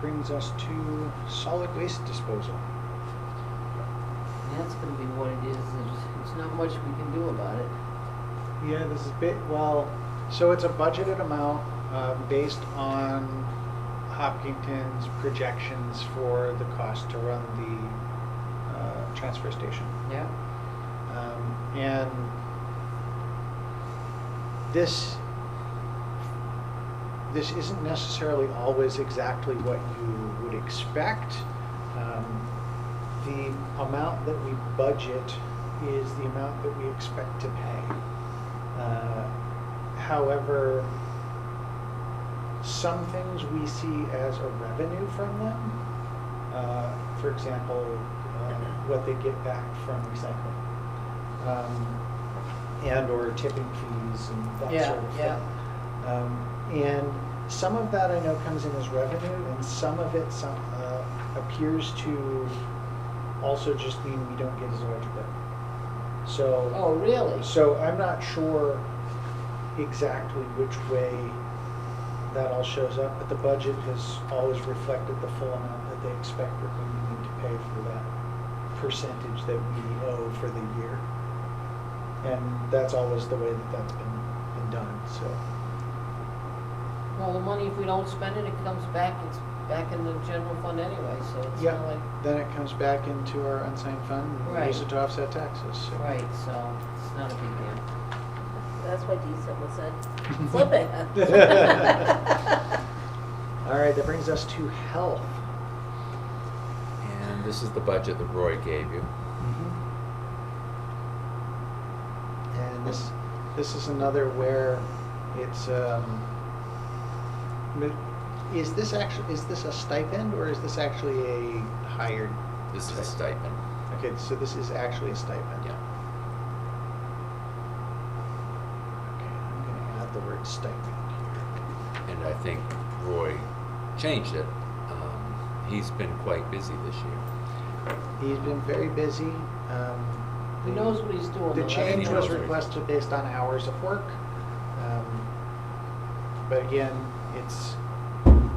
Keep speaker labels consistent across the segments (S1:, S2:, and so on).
S1: brings us to solid waste disposal.
S2: That's gonna be what it is, there's, there's not much we can do about it.
S1: Yeah, this is bit, well, so it's a budgeted amount, um, based on Hopkinton's projections for the cost to run the, uh, transfer station.
S2: Yeah.
S1: Um, and this this isn't necessarily always exactly what you would expect. Um, the amount that we budget is the amount that we expect to pay. Uh, however, some things we see as a revenue from them. Uh, for example, uh, what they get back from recycling. Um, and or tipping fees and that
S2: Yeah,
S1: sort of thing.
S2: yeah.
S1: Um, and some of that I know comes in as revenue, and some of it some, uh, appears to also just mean we don't get as much bill. So.
S2: Oh, really?
S1: So uh, I'm not sure exactly which way that all shows up, but the budget has always reflected the full amount that they expect we're going to need to pay for that percentage that we owe for the year. And that's always the way that that's been, been done, so,
S2: Well, the money, if we don't spend it, it comes back, it's back in the general fund anyway, so it's
S1: yeah.
S2: not like,
S1: Then it comes back into our unsigned fund, and we use
S2: Right.
S1: it to offset taxes, so.
S2: right, so it's not a big deal.
S3: That's why Deesa was said, flip it.
S1: All right, that brings us to health.
S4: And this is the budget that Roy gave you.
S1: And this, this is another where it's, um, mi- is this actually, is this a stipend or is this actually a hired?
S4: This is a stipend.
S1: Okay, so this is actually a stipend?
S4: Yeah.
S1: Okay, I'm gonna add the word stipend here.
S4: And I think Roy changed it. Um, he's been quite busy this year.
S1: He's been very busy, um.
S2: He
S1: the-
S2: knows what he's doing. though,
S1: The
S2: that's
S1: change
S4: He
S2: all.
S4: knows
S1: was
S4: what he's-
S1: requested based on hours of work. Um, But again, it's,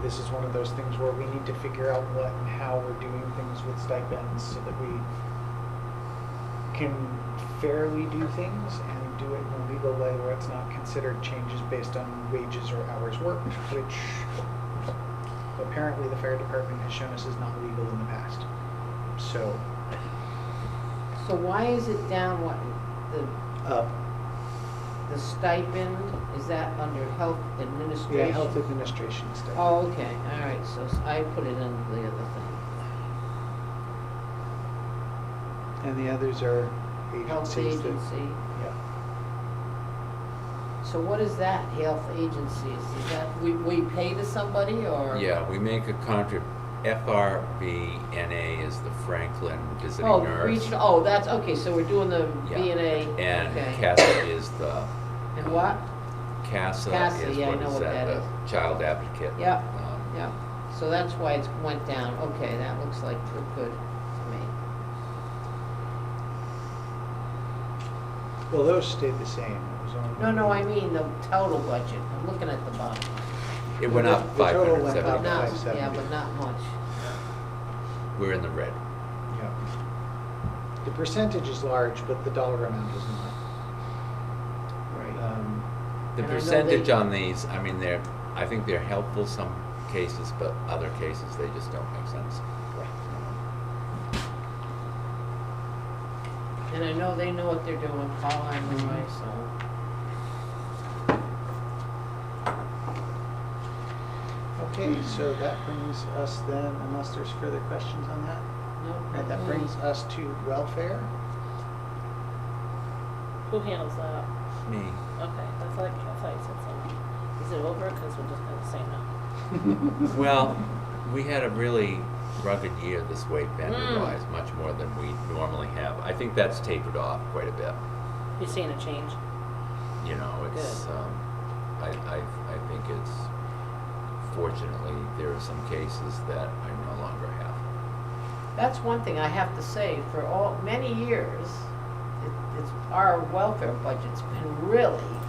S1: this is one of those things where we need to figure out what and how we're doing things with stipends so that we can fairly do things and do it in a legal way where it's not considered changes based on wages or hours worked, which apparently the fire department has shown us is not legal in the past. So,
S2: So why is it down, what, the,
S1: uh,
S2: the stipend, is that under health administration?
S1: yeah, health administration stipend.
S2: Oh, okay, all right, so s- I put it under the other thing.
S1: And the others are
S2: Health
S1: agencies that.
S2: agency,
S1: Yeah,
S2: so what is that, health agency, is that, we, we pay to somebody, or?
S4: Yeah, we make a contrib, FRBNA is the Franklin Visiting
S2: Oh,
S4: Nurse.
S2: regional, oh, that's, okay, so we're doing the
S4: Yeah.
S2: B and A,
S4: And
S2: okay.
S4: CASA is the,
S2: And what?
S4: CASA
S2: CASA,
S4: is
S2: yeah, I
S4: what
S2: know
S4: is
S2: what
S4: that,
S2: that
S4: the
S2: is.
S4: child advocate?
S2: Yep,
S4: um,
S2: yep, so that's why it's went down, okay, that looks like good, good to me.
S1: well, those stayed the same, it was only.
S2: No, no, I mean the total budget, I'm looking at the bottom.
S4: It went
S1: The-
S4: up
S1: the
S4: five
S1: total
S4: hundred
S1: went
S2: But
S1: About
S4: seventy.
S2: not, yeah,
S1: 570.
S2: but not much.
S4: We're in the red.
S1: Yeah. The percentage is large, but the dollar amount is not. Um,
S4: The
S2: And I know they-
S4: percentage on these, I mean, they're, I think they're helpful some cases, but other cases, they just don't make sense.
S2: And I know they know what they're doing, Paul and Roy, so.
S1: Okay, so that brings us then, unless there's further questions on that,
S2: no,
S1: right, Mm-hmm. that brings us to welfare.
S3: Who handles that?
S4: Me.
S3: Okay, that's like, I thought you said something. Is it over? Cause we're just gonna say no.
S4: Well, we had a really rugged year this way,
S2: Hmm.
S4: vendor-wise,
S3: Mm.
S4: much more than we normally have. I think that's tapered off quite a bit.
S3: You're seeing a change?
S4: You know, it's,
S3: Good.
S4: um, I, I, I think it's, fortunately, there are some cases that I no longer have.
S2: That's one thing I have to say, for all, many years, it- it's, our welfare budget's been really